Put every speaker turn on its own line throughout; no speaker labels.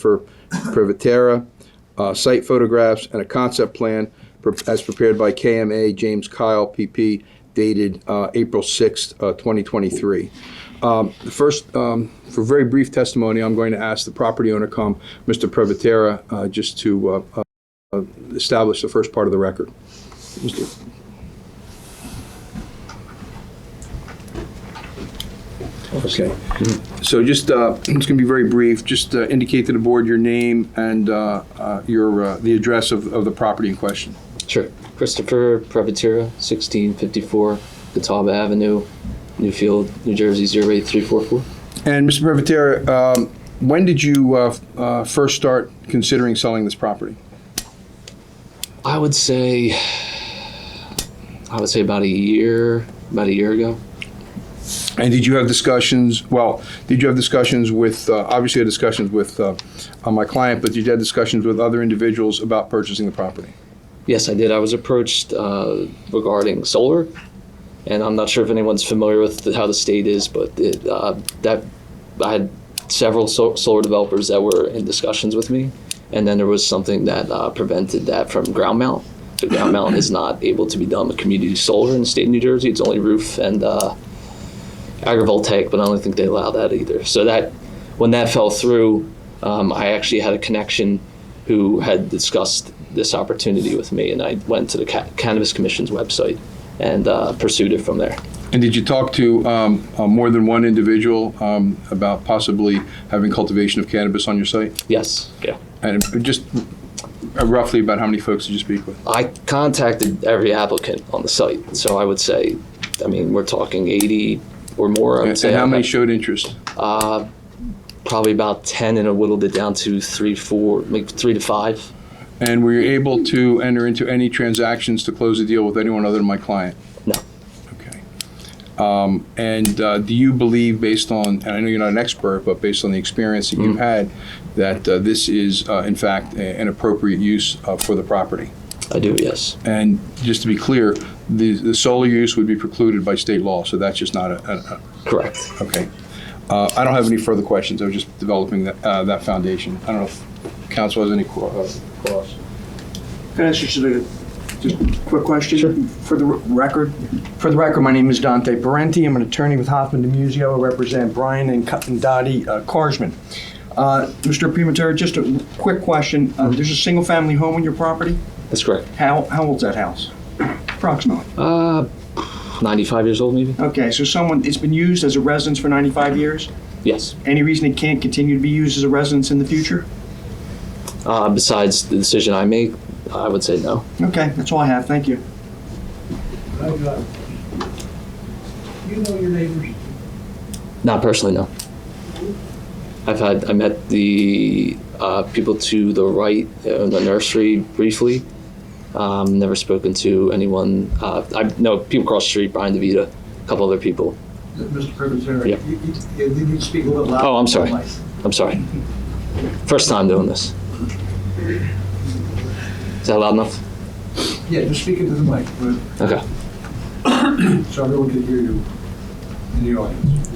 for Privatera, uh, site photographs, and a concept plan pre- as prepared by KMA James Kyle, PP, dated uh, April 6th, uh, 2023. Um, the First, um, for very brief testimony, I'm going to ask the property owner come, Mr. Privatera, uh, just to uh, uh, establish the first part of the record. Mr. Okay. So just, uh, it's going to be very brief, just uh, indicate to the board your name and uh, uh, your, uh, the address of of the property in question.
Sure. Christopher Prevotera, 1654 Catawba Avenue, Newfield, New Jersey, 08344.
And Mr. Privatera, um, when did you uh, f- uh, first start considering selling this property?
I would say, I would say about a year, about a year ago.
And did you have discussions, well, did you have discussions with, uh, obviously you had discussions with uh, uh, my client, but did you have discussions with other individuals about purchasing the property?
Yes, I did. I was approached uh, regarding solar, and I'm not sure if anyone's familiar with the, how the state is, but it, uh, that I had several so- solar developers that were in discussions with me, and then there was something that uh, prevented that from ground mount. So ground mount is not able to be done with community solar in the state of New Jersey. It's only roof and uh, agrivoltaic, but I don't think they allow that either. So that when that fell through, um, I actually had a connection who had discussed this opportunity with me, and I went to the Ca- Cannabis Commission's website and uh, pursued it from there.
And did you talk to um, uh, more than one individual um, about possibly having cultivation of cannabis on your site?
Yes, yeah.
And just uh, roughly about how many folks did you speak with?
I contacted every applicant on the site, so I would say, I mean, we're talking 80 or more. I would
And
say
how
I
many
had
showed interest?
probably about 10, and I whittled it down to three, four, maybe three to five.
And were you able to enter into any transactions to close a deal with anyone other than my client?
No,
Okay. Um, And uh, do you believe, based on, and I know you're not an expert, but based on the experience that you've
Mm-hmm.
had, that uh, this is uh, in fact a- an appropriate use uh, for the property?
I do. Yes,
And just to be clear, the the solar use would be precluded by state law, so that's just not a, a- a-
correct.
Okay. Uh, I don't have any further questions. I was just developing that, uh, that foundation. I don't know if council has any qu- uh, cross.
Can I ask you just a, just a quick question? For the record, for the record, my name is Dante Parenti. I'm an attorney with Hoffman DeMuzio. I represent Brian and Cut- and Dottie uh, Carsman. Uh, Mr. Pimentero, just a quick question. Uh, There's a single-family home on your property?
That's correct.
How, how old's that house? Approximately.
Uh, 95 years old, maybe.
Okay, so someone, it's been used as a residence for 95 years?
Yes.
Any reason it can't continue to be used as a residence in the future?
Uh, besides the decision I make, I would say no.
Okay, that's all I have. Thank you.
Hi, John. You know your neighbors.
Not personally, no. I've had I met the uh, people to the right in the nursery briefly. Um, never spoken to anyone. Uh, I know people across the street, Brian DeVita, a couple other people.
Mr. Privatera,
Yeah.
you you- you need to speak a little louder.
Oh, I'm sorry. I'm sorry. First time doing this. Is that loud enough?
Yeah, just speak into the mic, but-
Okay.
so everyone can hear you in the audience.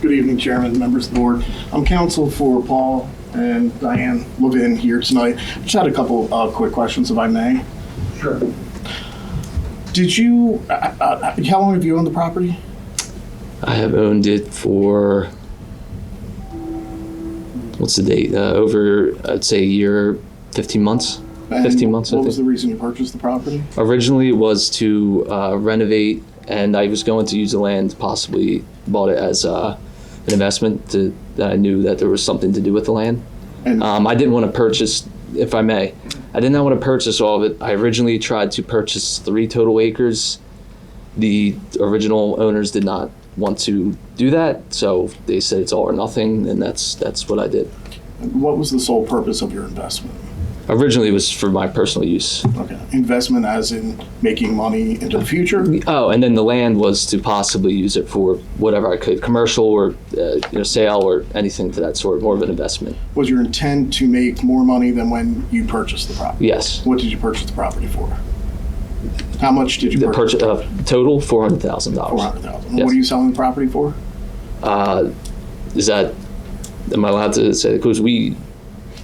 Good evening, Chairman, members of the board. I'm counsel for Paul and Diane Levin here tonight. Just had a couple uh, quick questions, if I may.
Sure.
Did you, uh, uh, how long have you owned the property?
I have owned it for what's the date? Uh, over I'd say a year, fifteen months.
And
15 months, I
What was
think.
the reason you purchased the property?
Originally, it was to uh, renovate, and I was going to use the land. Possibly bought it as uh, an investment to, that I knew that there was something to do with the land.
And
Um, I didn't want to purchase, if I may, I did not want to purchase all of it. I originally tried to purchase three total acres. The original owners did not want to do that, so they said it's all or nothing, and that's that's what I did.
what was the sole purpose of your investment?
Originally, it was for my personal use.
Okay, investment as in making money into the future?
Oh, and then the land was to possibly use it for whatever I could, commercial or uh, you know sale or anything to that sort, more of an investment.
Was your intent to make more money than when you purchased the property?
Yes,
What did you purchase the property for? How much did you
the
purchase?
purchase uh, total four hundred thousand dollars.
400000
Yes.
What are you selling the property for?
uh, is that am I allowed to say? Because we